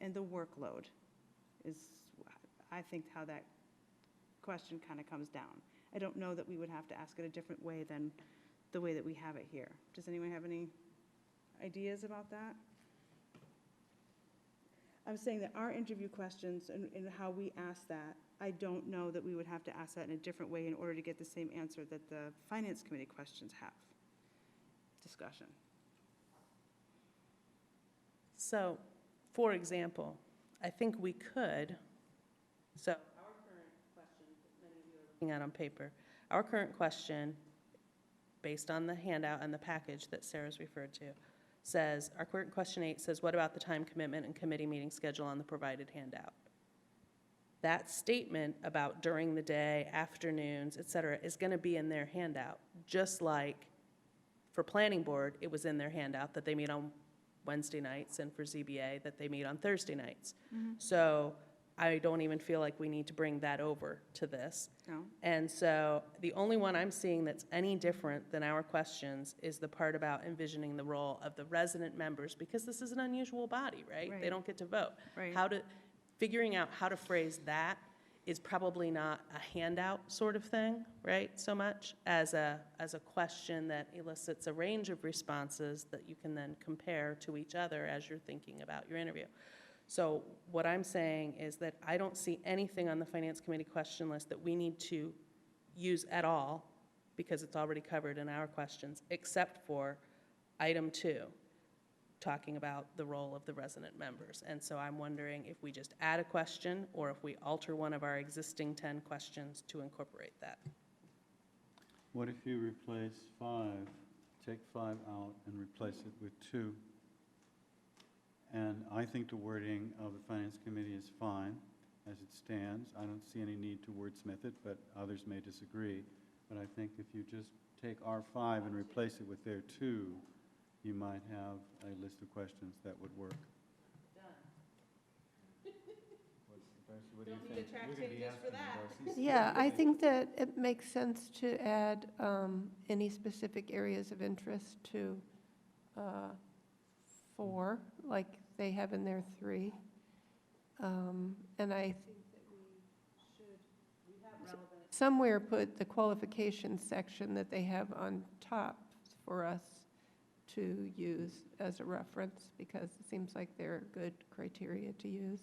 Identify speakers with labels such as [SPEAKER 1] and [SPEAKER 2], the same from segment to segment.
[SPEAKER 1] and the workload is, I think, how that question kind of comes down. I don't know that we would have to ask it a different way than the way that we have it here. Does anyone have any ideas about that? I'm saying that our interview questions and, and how we ask that, I don't know that we would have to ask that in a different way in order to get the same answer that the finance committee questions have. Discussion.
[SPEAKER 2] So, for example, I think we could, so. Our current question, many of you are looking at on paper, our current question, based on the handout and the package that Sarah's referred to, says, our current question eight says, what about the time commitment and committee meeting schedule on the provided handout? That statement about during the day, afternoons, et cetera, is going to be in their handout, just like for planning board, it was in their handout that they meet on Wednesday nights, and for ZBA, that they meet on Thursday nights. So I don't even feel like we need to bring that over to this.
[SPEAKER 1] No?
[SPEAKER 2] And so the only one I'm seeing that's any different than our questions is the part about envisioning the role of the resident members, because this is an unusual body, right?
[SPEAKER 1] Right.
[SPEAKER 2] They don't get to vote.
[SPEAKER 1] Right.
[SPEAKER 2] How to, figuring out how to phrase that is probably not a handout sort of thing, right, so much, as a, as a question that elicits a range of responses that you can then compare to each other as you're thinking about your interview. So what I'm saying is that I don't see anything on the Finance Committee question list that we need to use at all, because it's already covered in our questions, except for item two, talking about the role of the resident members. And so I'm wondering if we just add a question, or if we alter one of our existing 10 questions to incorporate that.
[SPEAKER 3] What if you replace five, take five out and replace it with two? And I think the wording of the finance committee is fine as it stands. I don't see any need to wordsmith it, but others may disagree. But I think if you just take our five and replace it with their two, you might have a list of questions that would work.
[SPEAKER 2] Don't need a track changes for that.
[SPEAKER 4] Yeah, I think that it makes sense to add um, any specific areas of interest to uh, four, like they have in their three. Um, And I think that we should somewhere put the qualification section that they have on top for us to use as a reference, because it seems like they're good criteria to use.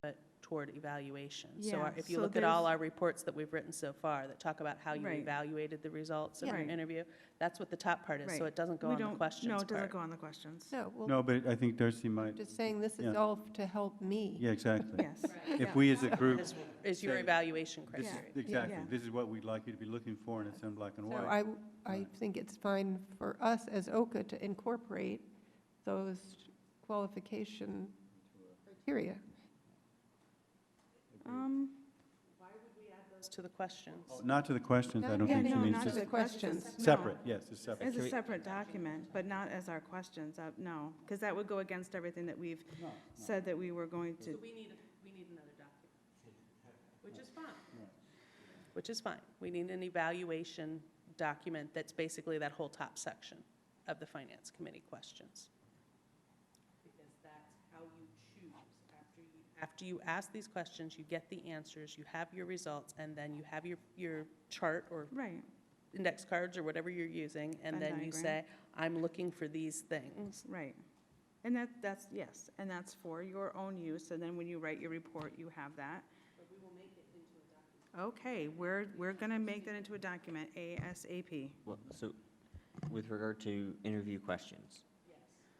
[SPEAKER 2] But toward evaluation. So our-
[SPEAKER 1] Yeah,
[SPEAKER 2] if you
[SPEAKER 1] so
[SPEAKER 2] look at all
[SPEAKER 1] there's-
[SPEAKER 2] our reports that we've written so far that talk about how you
[SPEAKER 1] Right.
[SPEAKER 2] evaluated the results of your
[SPEAKER 1] Yeah.
[SPEAKER 2] interview, that's what the top part is, so
[SPEAKER 1] Right.
[SPEAKER 2] it doesn't go
[SPEAKER 1] We
[SPEAKER 2] on the
[SPEAKER 1] don't-
[SPEAKER 2] questions
[SPEAKER 1] No, it
[SPEAKER 2] part.
[SPEAKER 1] doesn't go on the questions.
[SPEAKER 4] No, well,
[SPEAKER 3] No, but I think Darcy might,
[SPEAKER 4] just saying this is
[SPEAKER 3] Yeah.
[SPEAKER 4] all to help me.
[SPEAKER 3] yeah, exactly.
[SPEAKER 1] Yes.
[SPEAKER 3] If
[SPEAKER 1] Yeah.
[SPEAKER 3] we as a group,
[SPEAKER 2] Is- Is your
[SPEAKER 3] Say-
[SPEAKER 2] evaluation
[SPEAKER 3] this is-
[SPEAKER 2] criteria.
[SPEAKER 3] exactly,
[SPEAKER 1] Yeah.
[SPEAKER 3] this is what we'd like you to be looking for, and it's in black and
[SPEAKER 4] So
[SPEAKER 3] white.
[SPEAKER 4] I, I
[SPEAKER 3] Right.
[SPEAKER 4] think it's fine for us as OCA to incorporate those qualification criteria.
[SPEAKER 1] Um,
[SPEAKER 2] To the questions.
[SPEAKER 3] Not to the questions, I
[SPEAKER 4] No,
[SPEAKER 3] don't
[SPEAKER 4] yeah,
[SPEAKER 3] think she
[SPEAKER 1] no,
[SPEAKER 3] means,
[SPEAKER 1] not
[SPEAKER 3] just
[SPEAKER 1] as a-
[SPEAKER 4] questions.
[SPEAKER 1] that's as a- no.
[SPEAKER 3] separate, yes, it's separate.
[SPEAKER 1] As a separate document, but not as our questions, uh, no, because that would go against everything that we've said that we were going
[SPEAKER 2] So
[SPEAKER 1] to.
[SPEAKER 2] we need, we need another document, which is fine. Which is fine. We need an evaluation document that's basically that whole top section of the Finance Committee questions. Because that's how you choose after you. After you ask these questions, you get the answers, you have your results, and then you have your, your chart or
[SPEAKER 1] Right,
[SPEAKER 2] index cards or whatever you're using, and
[SPEAKER 1] Venn
[SPEAKER 2] then you
[SPEAKER 1] diagram.
[SPEAKER 2] say, I'm looking for these things.
[SPEAKER 1] right. And that, that's, yes, and that's for your own use, and then when you write your report, you have that. But we will make it into a document. Okay, we're, we're going to make that into a document ASAP.
[SPEAKER 5] Well, so with regard to interview questions.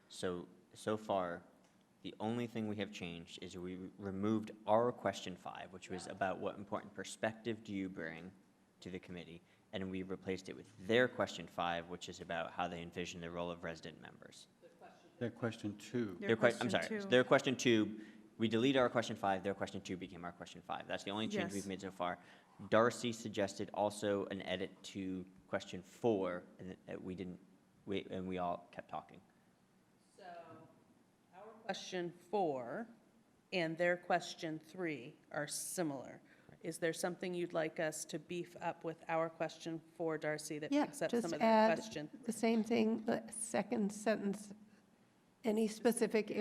[SPEAKER 5] So, so far, the only thing we have changed is we removed our question five, which was about what important perspective do you bring to the committee? And we replaced it with their question five, which is about how they envision the role of resident members.
[SPEAKER 3] That question two,
[SPEAKER 1] Their
[SPEAKER 5] Their que-
[SPEAKER 1] question
[SPEAKER 5] I'm sorry,
[SPEAKER 1] two.
[SPEAKER 5] their question two, we deleted our question five, their question two became our question five. That's the only change
[SPEAKER 1] Yes.
[SPEAKER 5] we've made so far. Darcy suggested also an edit to question four, and that- that we didn't, we, and we all kept talking.
[SPEAKER 2] So our question four and their question three are similar. Is there something you'd like us to beef up with our question four, Darcy, that
[SPEAKER 4] Yeah,
[SPEAKER 2] picks up
[SPEAKER 4] just
[SPEAKER 2] some of
[SPEAKER 4] add
[SPEAKER 2] that question?
[SPEAKER 4] The same thing, the second sentence, any specific